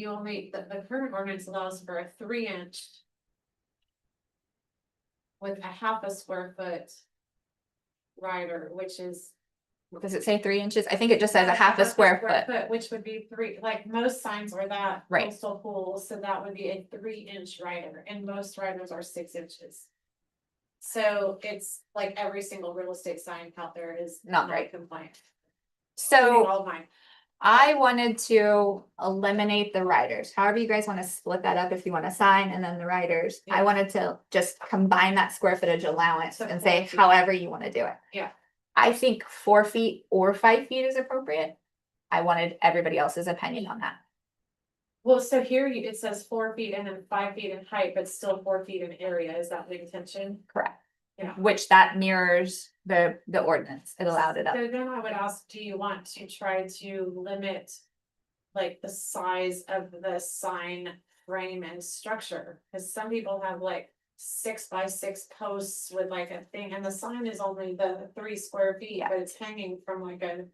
You only, the, the current ordinance allows for a three inch. With a half a square foot. Rider, which is. Does it say three inches? I think it just says a half a square foot. Which would be three, like most signs were that. Right. Coastal pool, so that would be a three inch rider, and most riders are six inches. So it's like every single real estate sign out there is. Not right. Compliant. So. All mine. I wanted to eliminate the riders, however you guys wanna split that up, if you want a sign and then the riders. I Yeah. wanted to just combine that square footage allowance So and four say feet. however you wanna do it. Yeah. I think four feet or five feet is appropriate. I wanted everybody else's opinion on that. Well, so here you, it says four feet and then five feet in height, but still four feet in area, is that the intention? Correct. Yeah. Which that mirrors the, the ordinance. It allowed it up. So then I would ask, do you want to try to limit? Like the size of the sign frame and structure, cause some people have like six by six posts with like a thing, and the sign is only the three square feet, Yeah. but it's hanging from like a.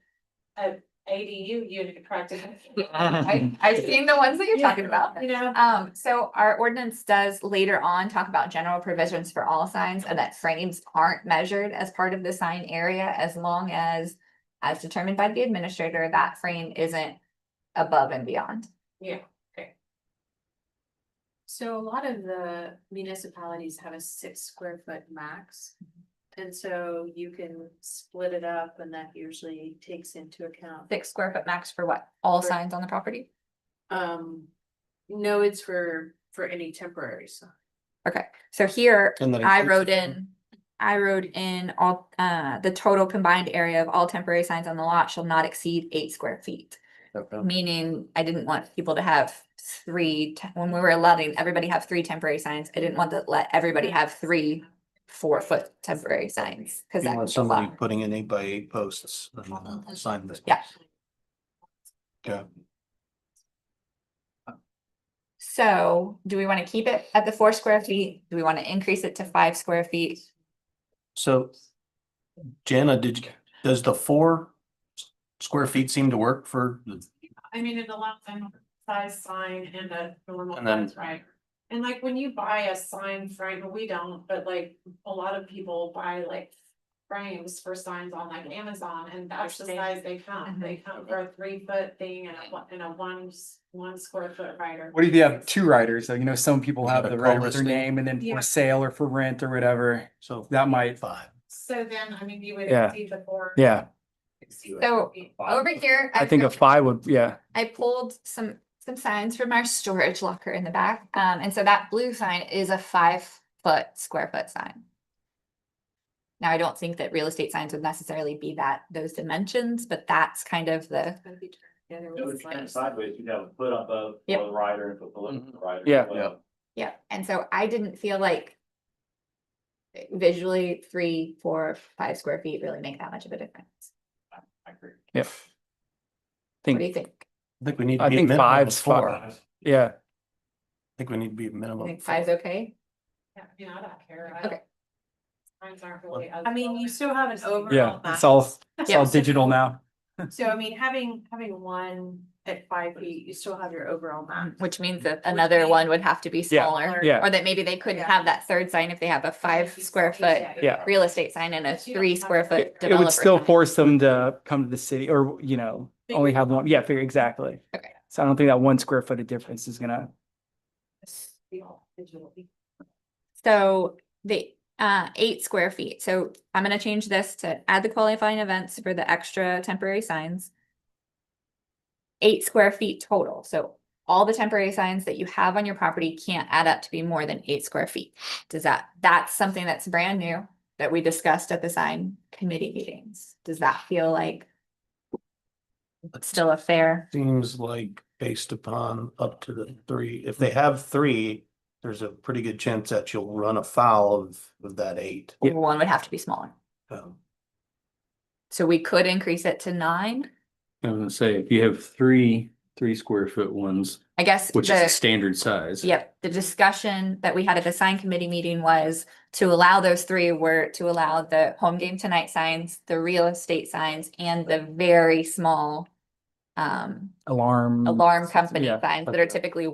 A ADU unit practically. I, I've seen the ones that you're talking about. You know, Um, so our ordinance does later on talk about general provisions for all signs and that frames aren't measured as part of the sign area as long as. As determined by the administrator, that frame isn't above and beyond. So a lot of the municipalities have a six square foot max. And so you can split it up and that usually takes into account, Six square foot max for what? All For- signs on the property? um, no, it's for, for any temporary sign. Okay, so here And that I includes wrote the frame. in, I wrote in all, uh, the total combined area of all temporary signs on the lot shall not exceed eight square feet. Okay. meaning I didn't want people to have three, te- when we were letting everybody have three temporary signs, I didn't want to let everybody have three four foot temporary signs, cause You that want could go somebody up. putting in eight by eight posts and uh, sign this. Yeah. Yeah, So do we wanna keep it at the four square feet? Do we wanna increase it to five square feet? so. Jana, did, you- does the four s- square feet seem to work for, the- I mean, it allows them size sign and a normal And then- size right? And like when you buy a sign frame, we don't, but like a lot of people buy like frames for signs on like Amazon and that's the Understand. size they come. They Mm-hmm. come for a three foot thing and a one, and a one, s- one square foot rider. What if you have two riders? Like, you know, some people You have got a the call rider with their listing. name and then Yeah. for sale or for rent or whatever. so That might, five? So then, I mean, you would Yeah. exceed the four. Yeah, So over here. I think a five would, yeah, I pulled some, some signs from our storage locker in the back, um, and so that blue sign is a five foot, square foot sign. Now, I don't think that real estate signs would necessarily be that, those dimensions, but that's kind of the, Gotta be turned together It with would stand slabs. sideways, you'd have a foot above Yep. for the rider and foot below for the rider. Yeah. as well. Yeah. yeah, and so I didn't feel like. Visually, three, four, five square feet really make that much of a difference. I agree. yeah. What do you Think, think? I think we need. to I be a think minimum of five's four. fine. yeah, I think we need to be a You minimum. think of five's four. okay? Yeah, I mean, I don't care. I Okay. Signs aren't really. I mean, you still have an overall. yeah, max. it's all, it's Yeah. all digital now. So I mean, having, having one at five feet, you still have your overall Um, max. Which means that Would another be- one would have to be Yeah, smaller, yeah. or that maybe they couldn't Yeah. have that third sign if they have a five square foot. Yeah. real estate sign and a But you don't three have square to- foot It- It developer. would still sign. force them to come to the city or, you know, only have one. Yeah, figure, exactly. Okay. So I don't think that one square foot of difference is gonna, So the uh eight square feet. So I'm gonna change this to add the qualifying events for the extra temporary signs. Eight square feet total. So all the temporary signs that you have on your property can't add up to be more than eight square feet. Does that, that's something that's brand new that we discussed at the sign committee meetings. Does that feel like still a fair? Seems like based upon up to the three, if they have three, there's a pretty good chance that you'll run afoul of, of that eight. Yeah. One would have to be smaller. Um, So we could increase it to nine. I was gonna say, if you have three, three square foot ones, I guess. which is the- the standard size. Yep, the discussion that we had at the sign committee meeting was to allow those three were to allow the home game tonight signs, the real estate signs, and the very small um, alarm. alarm company yeah, signs that Mm. okay. are typically